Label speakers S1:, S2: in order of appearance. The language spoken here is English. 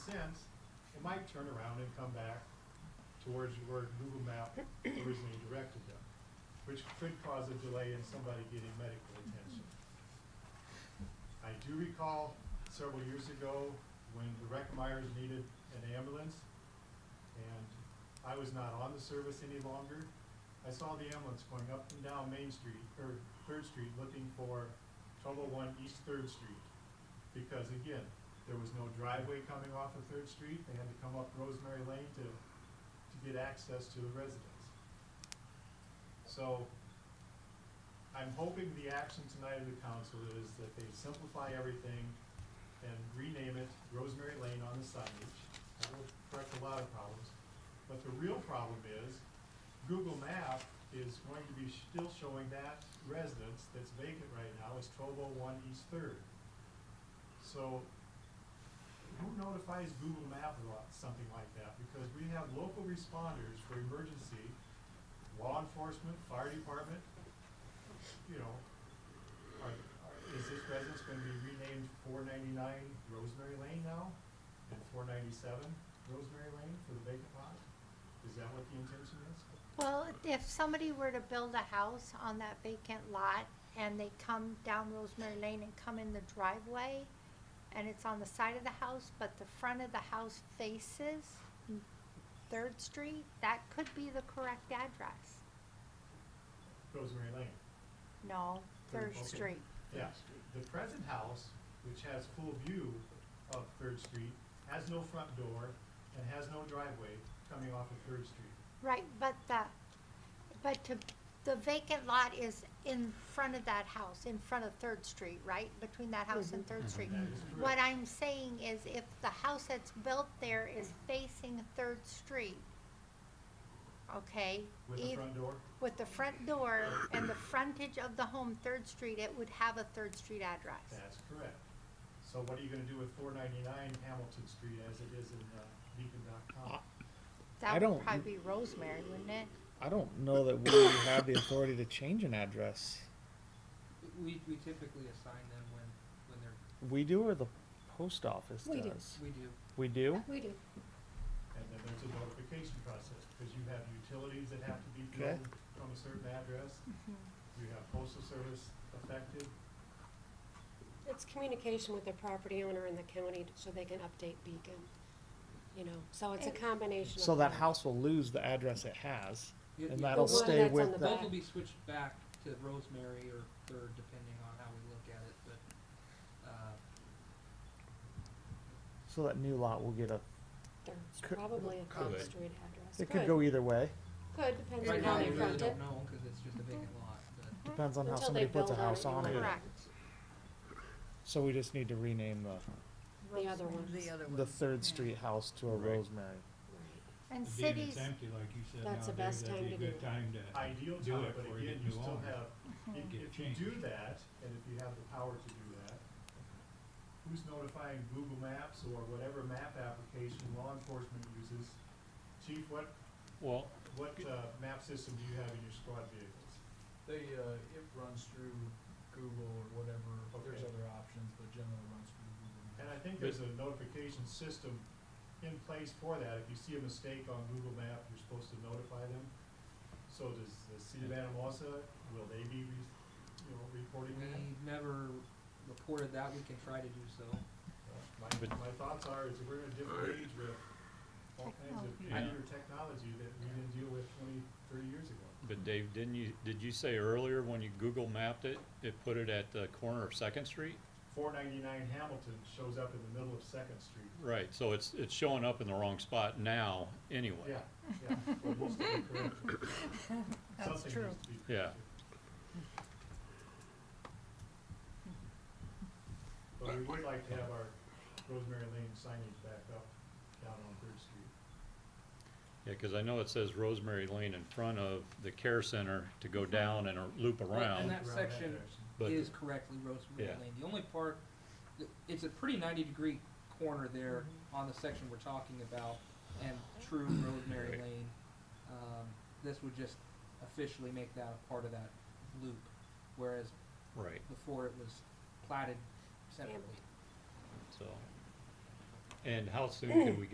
S1: sense, it might turn around and come back towards where Google Map originally directed them, which could cause a delay in somebody getting medical attention. I do recall several years ago when the Reckmeyers needed an ambulance and I was not on the service any longer. I saw the ambulance going up and down Main Street, or Third Street, looking for trouble one East Third Street. Because again, there was no driveway coming off of Third Street, they had to come up Rosemary Lane to, to get access to the residents. So, I'm hoping the action tonight of the council is that they simplify everything and rename it Rosemary Lane on the signage. That will correct a lot of problems. But the real problem is, Google Map is going to be still showing that residence that's vacant right now as twelve oh one East Third. So, who notifies Google Map about something like that? Because we have local responders for emergency, law enforcement, fire department, you know, are, are, is this residence gonna be renamed four ninety-nine Rosemary Lane now? And four ninety-seven Rosemary Lane for the vacant lot? Is that what the intention is?
S2: Well, if somebody were to build a house on that vacant lot and they come down Rosemary Lane and come in the driveway and it's on the side of the house, but the front of the house faces Third Street, that could be the correct address.
S1: Rosemary Lane.
S2: No, Third
S1: Okay.
S2: Street.
S1: Yeah, the present house, which has full view of Third Street, has no front door and has no driveway coming off of Third Street.
S2: Right, but the, but to, the vacant lot is in front of that house, in front of Third Street, right? Between that house
S1: Mm-hmm.
S2: and Third Street.
S1: That is
S2: What
S1: correct.
S2: I'm saying is if the house that's built there is facing Third Street, okay?
S1: With the
S2: eith-
S1: front door,
S2: With the front door and the frontage of the home, Third Street, it would have a Third Street address.
S1: that's correct. So what are you gonna do with four ninety-nine Hamilton Street as it is in uh, beacon.com?
S3: I
S2: That would
S3: don't-
S2: probably be Rosemary, wouldn't it?
S3: I don't know that we have the authority to change an address.
S4: We, we typically assign them when, when they're,
S3: We do, or the post office
S5: We do.
S3: does.
S4: we do.
S3: We do.
S5: We do.
S2: Uh.
S1: And then there's a notification process, because you have utilities that have to be
S3: Okay.
S1: billed from a certain address.
S2: Mm-hmm.
S1: You have postal service affected,
S5: It's communication with the property owner and the county so they can update Beacon, you know, so it's a
S2: And-
S5: combination of.
S3: So that
S5: both.
S3: house will lose the address it has,
S4: It-
S3: and
S4: it-
S3: that'll
S5: The one
S3: stay
S5: that's on
S3: with
S5: the
S3: the.
S5: back.
S4: Both will be switched back to Rosemary or Third, depending on how we look at it, but, uh,
S3: So that new lot will get a.
S5: There's
S3: Could-
S5: probably a
S6: could.
S5: Third Street address.
S3: It could go e- either way.
S5: Could, depends on
S4: right
S5: how
S4: now,
S5: they
S4: we really
S5: front it.
S4: don't know, cause it's just a vacant lot, but
S3: Depends on how
S5: Until
S3: somebody
S5: they
S3: puts a
S5: build on
S3: house
S5: it,
S3: on
S5: you
S3: it.
S5: might-
S2: Correct.
S3: So we just need to rename the
S5: The other
S2: Rosemary.
S5: ones.
S3: the Third Street house to a
S6: Right.
S3: Rosemary.
S5: Right.
S6: Being
S2: And
S6: it's
S2: cities,
S6: empty, like you said
S5: That's the
S6: nowadays,
S5: best
S6: that'd be a
S5: time to do
S6: good
S5: it.
S6: time to.
S1: ideal
S6: Do
S1: time,
S6: it
S1: but
S6: before you
S1: again,
S6: get
S1: you
S6: too
S1: still
S6: long.
S1: have, if
S2: Mhm.
S6: Get
S1: if you do
S6: changed.
S1: that, and if you have the power to do that, who's notifying Google Maps or whatever map application law enforcement uses? Chief, what,
S7: Well,
S1: what, uh, map system do you have in your squad vehicles?
S8: They, uh, it runs through Google or whatever, there's
S1: Okay.
S8: other options, but generally runs through Google.
S1: And I think there's a notification system in place for that. If you see a mistake on Google Map, you're supposed to notify them. So does the city of Anamosa, will they be, re- you know, reporting that?
S6: Mm,
S4: we never reported that, we can try to do so.
S1: My, my thoughts are, is we're in a different age with all kinds of
S7: Technology.
S1: computer technology that we didn't deal with twenty, thirty years ago.
S7: but Dave, didn't you, did you say earlier when you Google mapped it, it put it at the corner of Second Street?
S1: Four ninety-nine Hamilton shows up in the middle of Second Street.
S7: Right, so it's, it's showing up in the wrong spot now, anyway.
S1: Yeah, yeah. It needs to be corrected.
S2: That's
S1: Something
S2: true.
S1: needs to be
S7: Yeah.
S1: corrected. But we would like to have our Rosemary Lane signage back up down on Third Street.
S7: Yeah, cause I know it says Rosemary Lane in front of the care center to go down and uh, loop
S4: And
S7: around,
S4: that
S1: Around
S4: section
S1: direction.
S7: but,
S4: is correctly Rosemary
S7: Yeah.
S4: Lane. The only part, th- it's a pretty ninety degree corner there on the section we're talking about and true Rosemary
S7: Right.
S4: Lane. Um, this would just officially make that a part of that loop, whereas
S7: right,
S4: before it was platted separately.
S7: so. And how soon can we get